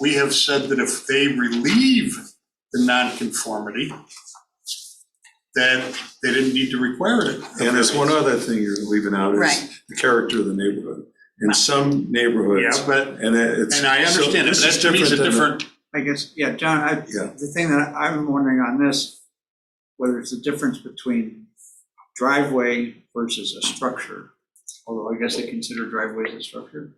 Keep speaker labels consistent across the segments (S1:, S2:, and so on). S1: we have said that if they relieve the nonconformity, that they didn't need to require it.
S2: And there's one other thing you're leaving out
S3: Right.
S2: is the character of the neighborhood. In some neighborhoods,
S1: Yeah, but,
S2: and it- it's.
S1: and I
S2: so
S1: understand, it,
S2: this
S1: but
S2: is
S1: that to me is a
S2: than the-
S1: different,
S4: I guess, yeah, John, I,
S2: Yeah.
S4: the thing that I'm wondering on this, whether it's the difference between driveway versus a structure, although I guess they consider driveways a structure.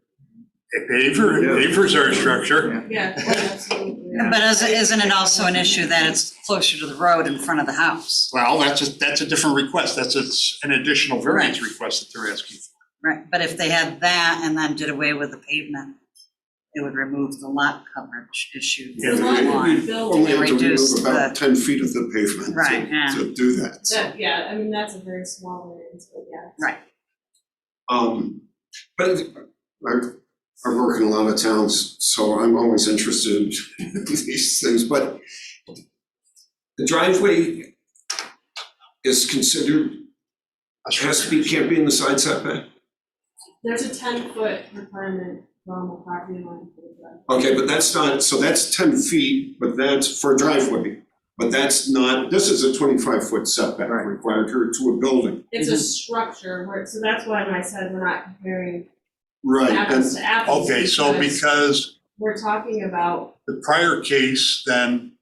S1: a paver, pavers are a structure.
S4: Yeah.
S5: Yeah, oh, absolutely.
S4: Yeah.
S3: But is- isn't it also an issue that it's closer to the road in front of the house?
S1: Well, that's a, that's a different request, that's a s- an additional variance request that they're asking. for.
S3: Right, but if they had that and then did away with the pavement, it would remove the lot coverage issue.
S1: Yeah,
S5: The lot that we
S3: Line.
S5: built,
S6: Only have to
S3: Reduce
S6: remove about ten feet of the pavement
S3: Right, yeah.
S6: to, to do that, so.
S5: that- yeah, I mean, that's a very small variance, but yeah.
S6: Um, but I've, I've worked in a lot of towns, so I'm always interested in these things, but the driveway is considered,
S1: A
S6: has to
S1: structure.
S6: be, can't be in the side setback.
S5: There's a ten foot requirement from the property line for the driveway.
S6: Okay, but that's not, so that's ten feet, but that's for a driveway. But that's not, this is a twenty-five foot setback
S4: Right.
S6: required to, to a building.
S5: It's a structure where, so that's why when I said we're not comparing
S6: Right,
S5: apples
S6: and,
S5: to apples.
S1: Okay, so
S5: because
S1: because
S5: We're talking about,
S1: The prior case then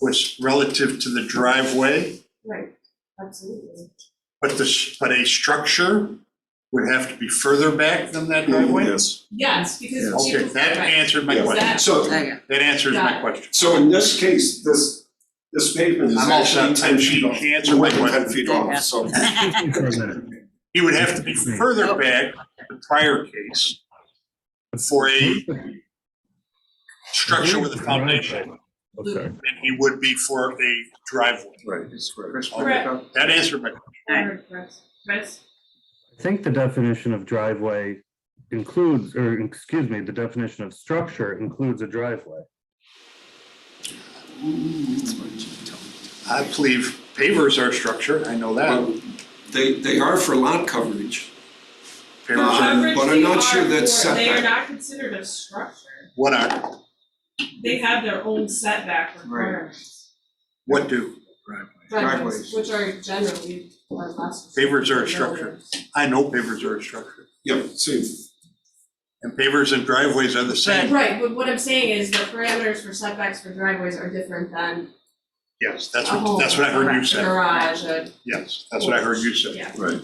S1: was relative to the driveway,
S5: right, absolutely.
S1: but the, but a structure would have to be further back than that
S2: Mm-hmm.
S1: driveway?
S2: Yes,
S5: Yes, because.
S2: Yeah.
S1: Okay,
S5: people-
S1: that
S5: right.
S1: answered my
S6: Yeah.
S1: question.
S5: That-
S6: so,
S3: There you go.
S1: That answers my
S5: Got it.
S1: question.
S6: so in this case, this, this pavement is
S1: I'm all
S6: actually
S1: set.
S6: ten feet
S1: She
S6: off.
S1: answered my
S6: More than
S1: question.
S6: Ten feet off, so.
S1: He would have to be further back than the prior case for a structure with a foundation
S7: Okay.
S1: than he would be for a driveway.
S2: right, that's right.
S4: Chris, what do you think?
S1: That answered my,
S5: Or Chris, Chris?
S7: I think the definition of driveway includes, or excuse me, the definition of structure includes a driveway.
S1: I believe pavers are a structure, I know that.
S6: Well, Um, They, they are for lot coverage.
S1: Pavers are,
S5: Uh-huh.
S6: Um, but I'm not sure that's
S5: Coverage, they are for- They are
S6: setback.
S5: not considered a structure.
S1: what are,
S5: They have their own setback requirements.
S1: what do?
S4: Driveways.
S5: Which are generally or less.
S1: Favors are a structure. I know pavers are a structure,
S6: Yep, see,
S1: and pavers and driveways are the same.
S5: Right, but what I'm saying is the parameters for setbacks for driveways are different than
S1: Yes, that's
S5: a
S1: what,
S5: home,
S1: that's what I heard you
S5: a
S1: say.
S5: garage, a,
S1: Yes, that's what I heard you say.
S5: yeah.
S6: right.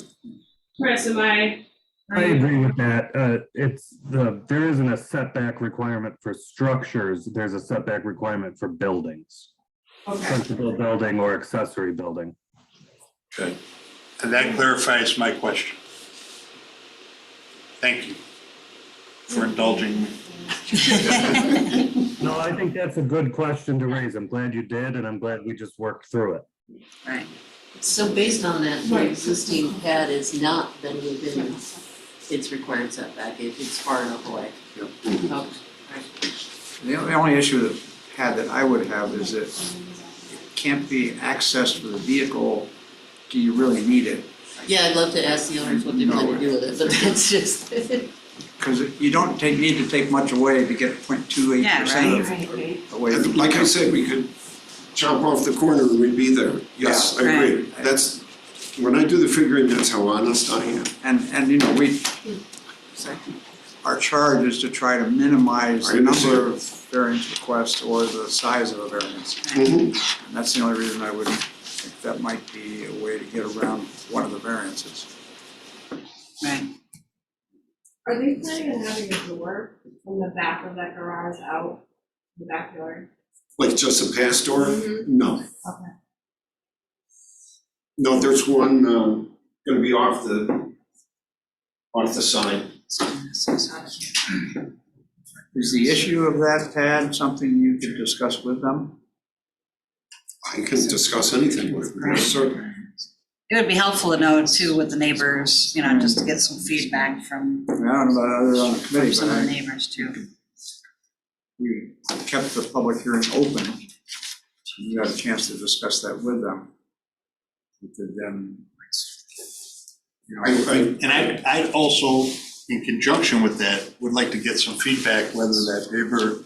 S5: Chris, am I?
S7: I agree with that. Uh, it's the, there isn't a setback requirement for structures. There's a setback requirement for buildings.
S5: Okay,
S7: Principal building or accessory building.
S1: And that clarifies my question. Thank you for indulging me.
S7: No, I think that's a good question to raise. I'm glad you did, and I'm glad we just worked through it.
S3: Right.
S8: So based on that,
S5: Right.
S8: the existing pad is not then within its required setback, if it's far enough away. Okay.
S4: The only- the only issue that had that I would have is that it can't be accessed with a vehicle, do you really need it?
S8: Yeah, I'd love to ask the owners what they plan to do with it, but that's just.
S4: Because you don't take, need to take much away to get 0.28 percent of away.
S6: And like I said, we could chop off the corner and we'd be there. Yes, I agree.
S4: Right.
S6: That's, when I do the figuring, that's how honest I am.
S4: And, and you know, we,
S8: Sorry.
S4: our charge is to try to minimize
S6: I
S4: the
S6: understand.
S4: number of variance requests or the size of a variance.
S6: Mhm.
S4: And that's the only reason I would think that might be a way to get around one of the variances.
S3: Right.
S5: Are they planning on having a door from the back of that garage out the backyard?
S6: Like just a pass door?
S5: Mhm.
S6: No.
S5: Okay.
S6: No, there's one, um, gonna be off the, off the side.
S4: Is the issue of that, Tad, something you could discuss with them?
S6: I can discuss anything with them, certainly.
S3: It would be helpful to know too with the neighbors, you know, just to get some feedback from
S4: I mean, I don't know about others on the committee, but
S3: some of the
S4: I,
S3: neighbors too.
S4: we kept the public hearing open. You had a chance to discuss that with them. You could then, you know,
S6: I,
S1: And I, I also, in conjunction with that, would like to get some feedback whether that paver